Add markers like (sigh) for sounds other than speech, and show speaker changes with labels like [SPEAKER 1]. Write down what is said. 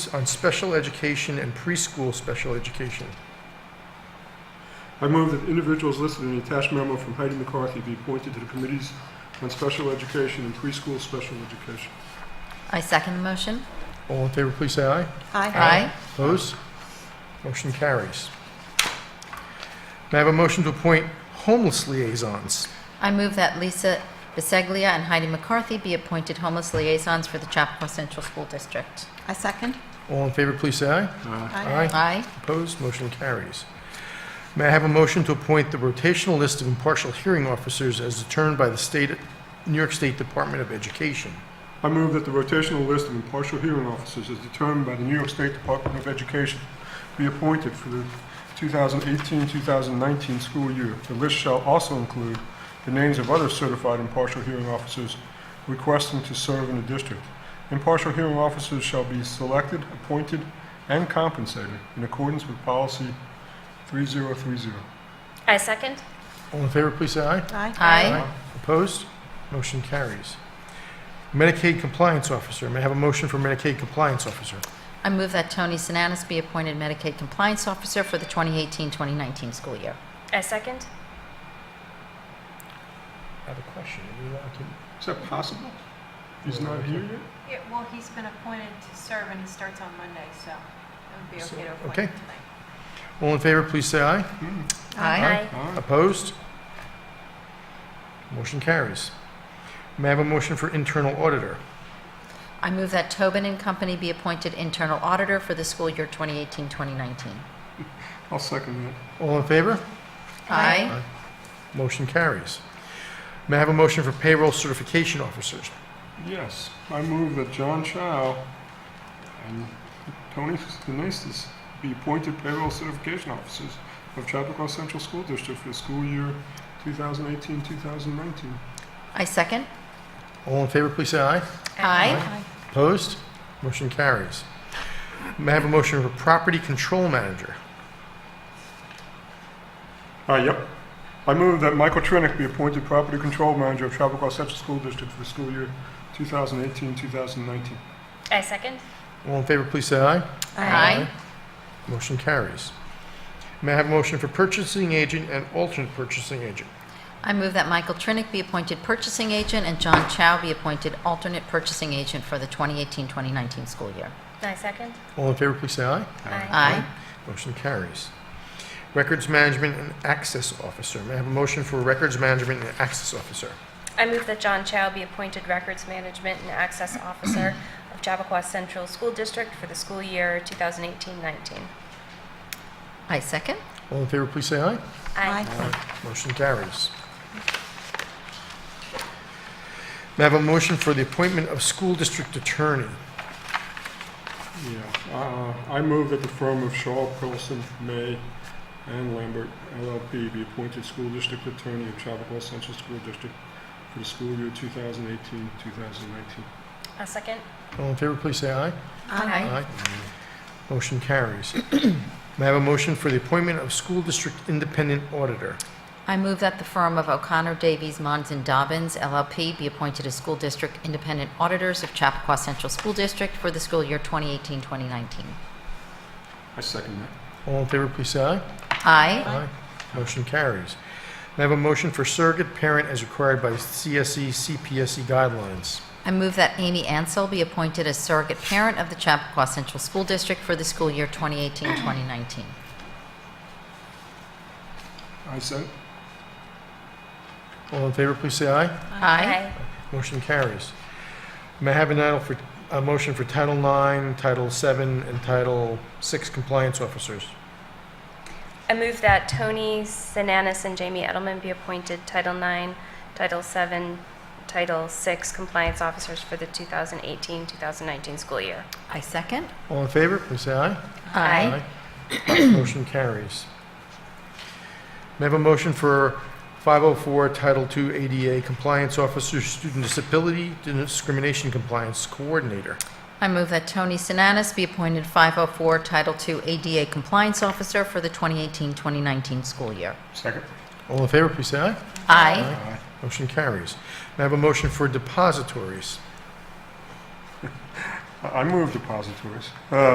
[SPEAKER 1] s- on special education and preschool special education.
[SPEAKER 2] I move that individuals listed in the attached memo from Heidi McCarthy be appointed to the committees on special education and preschool special education.
[SPEAKER 3] I second the motion.
[SPEAKER 1] All in favor, please say aye.
[SPEAKER 3] Aye.
[SPEAKER 1] Opposed? Motion carries. May I have a motion to appoint homeless liaisons?
[SPEAKER 3] I move that Lisa Biseglia and Heidi McCarthy be appointed homeless liaisons for the Chappaqua Central School District.
[SPEAKER 4] I second.
[SPEAKER 1] All in favor, please say aye.
[SPEAKER 2] Aye.
[SPEAKER 3] Aye.
[SPEAKER 1] Opposed? Motion carries. May I have a motion to appoint the rotational list of impartial hearing officers as determined by the state, New York State Department of Education?
[SPEAKER 2] I move that the rotational list of impartial hearing officers as determined by the New York State Department of Education be appointed for the 2018-2019 school year. The list shall also include the names of other certified impartial hearing officers requesting to serve in the district. Impartial hearing officers shall be selected, appointed, and compensated in accordance with policy 3030.
[SPEAKER 5] I second.
[SPEAKER 1] All in favor, please say aye.
[SPEAKER 3] Aye.
[SPEAKER 1] Opposed? Motion carries. Medicaid Compliance Officer, may I have a motion for Medicaid Compliance Officer?
[SPEAKER 3] I move that Tony Sinanis be appointed Medicaid Compliance Officer for the 2018-2019 school year.
[SPEAKER 5] I second.
[SPEAKER 1] I have a question.
[SPEAKER 2] Is that possible? He's not here yet?
[SPEAKER 6] Yeah, well, he's been appointed to serve and he starts on Monday, so it would be
[SPEAKER 1] So,
[SPEAKER 6] okay to appoint
[SPEAKER 1] okay.
[SPEAKER 6] him tonight.
[SPEAKER 1] All in favor, please say aye.
[SPEAKER 2] Hmm.
[SPEAKER 3] Aye.
[SPEAKER 2] All right.
[SPEAKER 1] Opposed? Motion carries. May I have a motion for Internal Auditor?
[SPEAKER 3] I move that Tobin and Company be appointed internal auditor for the school year 2018-2019.
[SPEAKER 2] I'll second that.
[SPEAKER 1] All in favor?
[SPEAKER 3] Aye.
[SPEAKER 1] Motion carries. May I have a motion for Payroll Certification Officers?
[SPEAKER 2] Yes, I move that John Chow and Tony Sinestis be appointed payroll certification officers of Chapakua Central School District for the school year 2018-2019.
[SPEAKER 3] I second.
[SPEAKER 1] All in favor, please say aye.
[SPEAKER 3] Aye.
[SPEAKER 1] Opposed? Motion carries. May I have a motion for Property Control Manager?
[SPEAKER 2] Uh, yep. I move that Michael Trinick be appointed property control manager of Chapakua Central School District for the school year 2018-2019.
[SPEAKER 5] I second.
[SPEAKER 1] All in favor, please say aye.
[SPEAKER 3] Aye.
[SPEAKER 1] Motion carries. May I have a motion for Purchasing Agent and Alternate Purchasing Agent?
[SPEAKER 3] I move that Michael Trinick be appointed purchasing agent and John Chow be appointed alternate purchasing agent for the 2018-2019 school year.
[SPEAKER 5] I second.
[SPEAKER 1] All in favor, please say aye.
[SPEAKER 5] Aye.
[SPEAKER 3] Aye.
[SPEAKER 1] Motion carries. Records Management and Access Officer. May I have a motion for Records Management and Access Officer?
[SPEAKER 5] I move that John Chow be appointed Records Management and Access Officer of Chappaqua Central School District for the school year 2018-19.
[SPEAKER 3] I second.
[SPEAKER 1] All in favor, please say aye. Motion carries. May I have a motion for the appointment of school district attorney?
[SPEAKER 2] Yeah, uh, I move that the firm of Shaw, Pilson, May, and Lambert LLP be appointed school district attorney of Chapakua Central School District for the school year 2018-2019.
[SPEAKER 5] I second.
[SPEAKER 1] All in favor, please say aye.
[SPEAKER 3] Aye.
[SPEAKER 1] Motion carries. (clears throat) May I have a motion for the appointment of school district independent auditor?
[SPEAKER 3] I move that the firm of O'Connor Davies Mons and Dobbins LLP be appointed as school district independent auditors of Chappaqua Central School District for the school year 2018-2019.
[SPEAKER 2] I second that.
[SPEAKER 1] All in favor, please say aye.
[SPEAKER 3] Aye.
[SPEAKER 1] Aye. Motion carries. May I have a motion for surrogate parent as required by E CSE CPSE guidelines?
[SPEAKER 3] I move that Amy Ansell be appointed as surrogate parent of the Chappaqua Central School District for the school year 2018-2019.
[SPEAKER 2] I said,
[SPEAKER 1] All in favor, please say aye.
[SPEAKER 3] Aye.
[SPEAKER 1] Motion carries. May I have an idle for, a motion for Title IX, Title VII, and Title VI compliance officers?
[SPEAKER 5] I move that Tony Sinanis and Jamie Edelman be appointed Title IX, Title VII, Title VI compliance officers for the 2018-2019 school year.
[SPEAKER 3] I second.
[SPEAKER 1] All in favor, please say aye.
[SPEAKER 3] Aye.
[SPEAKER 1] Aye. (coughs) Motion carries. May I have a motion for 504 Title II ADA Compliance Officer, Student Disability Discrimination Compliance Coordinator?
[SPEAKER 3] I move that Tony Sinanis be appointed 504 Title II ADA Compliance Officer for the 2018-2019 school year.
[SPEAKER 2] second.
[SPEAKER 1] All in favor, please say aye.
[SPEAKER 3] Aye.
[SPEAKER 1] Motion carries. May I have a motion for depositories?
[SPEAKER 2] I I move depositories. Uh,